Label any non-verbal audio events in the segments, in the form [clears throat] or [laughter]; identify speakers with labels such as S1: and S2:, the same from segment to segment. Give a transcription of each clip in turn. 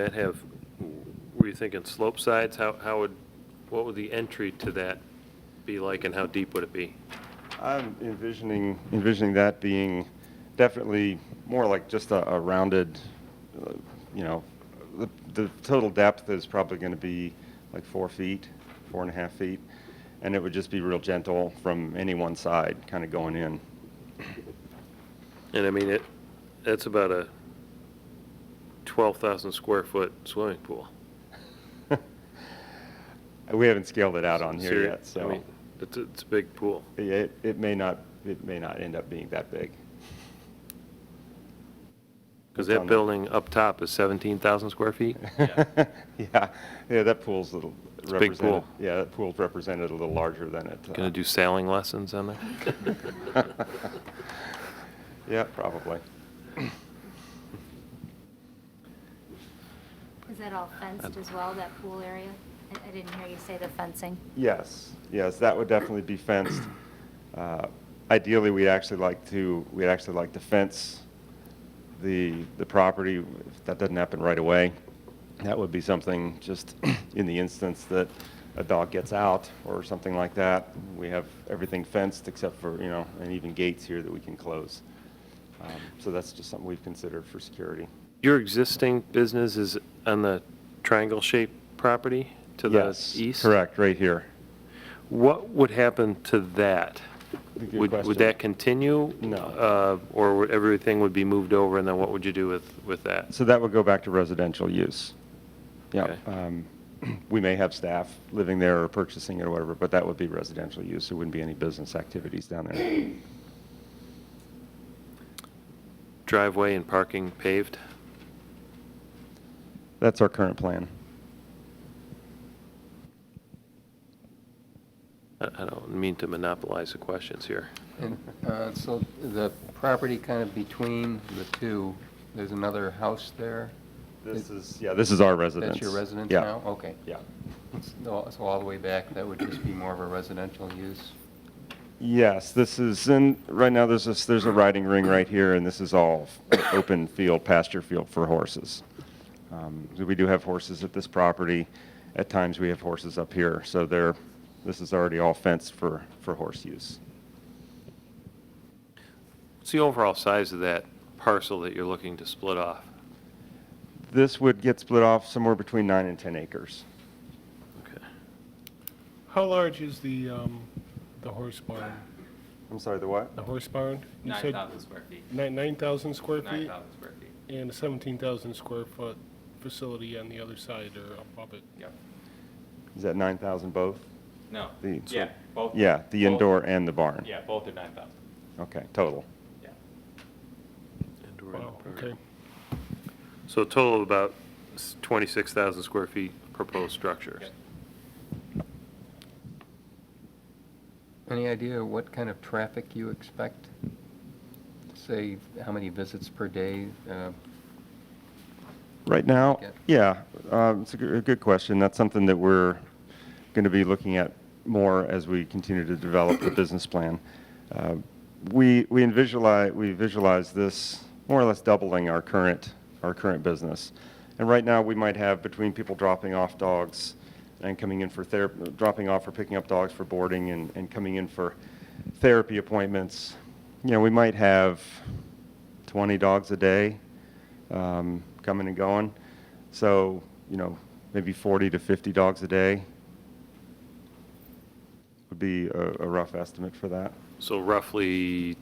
S1: That have, were you thinking slope sides? How, how would, what would the entry to that be like and how deep would it be?
S2: I'm envisioning, envisioning that being definitely more like just a, a rounded, uh, you know, the, the total depth is probably going to be like four feet, four and a half feet, and it would just be real gentle from any one side, kind of going in.
S1: And I mean, it, that's about a 12,000 square foot swimming pool.
S2: We haven't scaled it out on here
S1: Seri-
S2: yet,
S1: I
S2: so
S1: mean, It's, a- it's a big pool.
S2: it, it may not, it may not end up being that
S1: [laughs]
S2: big.
S1: Because
S2: It's on
S1: that
S2: the-
S1: building up top is 17,000 square
S2: [laughs]
S1: feet?
S2: Yeah, yeah, that pool's a little.
S1: It's a big pool.
S2: represented- Yeah, that pool's represented a little larger than it. uh,
S1: Going to do sailing lessons on there? [laughs]
S2: [laughs] Yeah, probably.
S3: Is that all fenced as well, that pool area? I I didn't hear you say the fencing.
S2: Yes, yes, that would definitely be fenced. Uh, Ideally, we'd actually like to, we'd actually like to fence the, the property. If that doesn't happen right away, that would be something just [clears throat] in the instance that a dog gets out or something like that. We have everything fenced except for, you know, and even gates here that we can close. Um, So that's just something we've considered for security.
S1: Your existing business is on the triangle-shaped property to the
S2: Yes,
S1: east?
S2: Correct, right here.
S1: What would happen to that?
S2: Good
S1: Would,
S2: question.
S1: would that continue?
S2: No.
S1: Uh, Or would everything would be moved over, and then what would you do with, with that?
S2: So that would go back to residential use. Yeah.
S1: Okay.
S2: um, [clears throat] We may have staff living there or purchasing it or whatever, but that would be residential use. There wouldn't be any business activities down there.
S1: Driveway and parking paved?
S2: That's our current plan.
S1: I I don't mean to monopolize the questions here.
S4: And, uh, So the property kind of between the two, there's another house there?
S2: This is, yeah, this is our residence.
S4: That's your residence
S2: Yeah,
S4: now? Okay.
S2: Yeah.
S4: So so all the way back, that would just be more of a residential use?
S2: Yes, this is, and right now, there's this, there's a riding ring right here, and this is all [coughs] open field, pasture field for horses. Um, so We do have horses at this property. At times, we have horses up here, so there, this is already all fenced for, for horse use.
S1: What's the overall size of that parcel that you're looking to split off?
S2: This would get split off somewhere between nine and 10 acres.
S1: Okay.
S5: How large is the, um, the horse barn?
S2: I'm sorry, the what?
S5: The horse barn? You said
S6: 9,000 square feet.
S5: Nine, nine thousand square feet?
S6: 9,000 square feet,
S5: And a seventeen thousand square foot facility on the other side or above it?
S6: yep.
S2: Is that 9,000 both?
S6: No,
S2: The-
S6: yeah, both.
S2: Yeah, the
S6: both-
S2: indoor and the barn?
S6: Yeah, both are 9,000,
S2: Okay, total.
S6: yeah.
S1: Indoor and
S5: Wow,
S1: outdoor.
S5: okay.
S1: So a total of about s- 26,000 square feet proposed structures.
S6: Yep.
S4: Any idea what kind of traffic you expect? Say, how many visits per day? uh,
S2: Right now,
S4: Yeah.
S2: yeah, um, it's a good, a good question. That's something that we're going to be looking at more as we continue to develop the business plan. Uh, We, we visualize, we visualize this more or less doubling our current, our current business. And right now, we might have between people dropping off dogs and coming in for therapy, dropping off or picking up dogs for boarding and, and coming in for therapy appointments, you know, we might have 20 dogs a day um, coming and going. So, you know, maybe 40 to 50 dogs a day would be a, a rough estimate for that.
S1: So roughly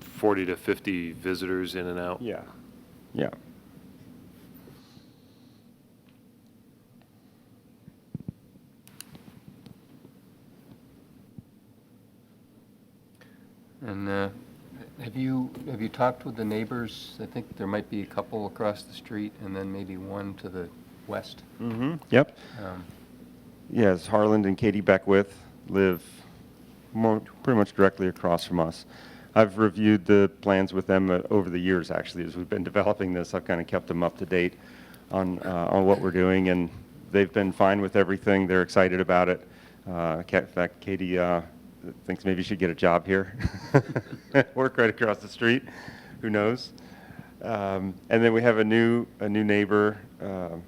S1: 40 to 50 visitors in and out?
S2: Yeah. Yeah.
S4: And uh, have you, have you talked with the neighbors? I think there might be a couple across the street and then maybe one to the west.
S2: Mm-hmm. Yep.
S4: Um,
S2: Yes, Harland and Katie Beckwith live more, pretty much directly across from us. I've reviewed the plans with them uh, over the years, actually, as we've been [laughs] developing this. I've kind of kept them up to date on, uh, on what we're doing, and they've been fine with everything. They're excited about it. Uh, Ca- In fact, Katie uh, thinks [laughs] maybe she'd get a job here, work right across the street, who knows? Um, And then we have a new, a new neighbor, um,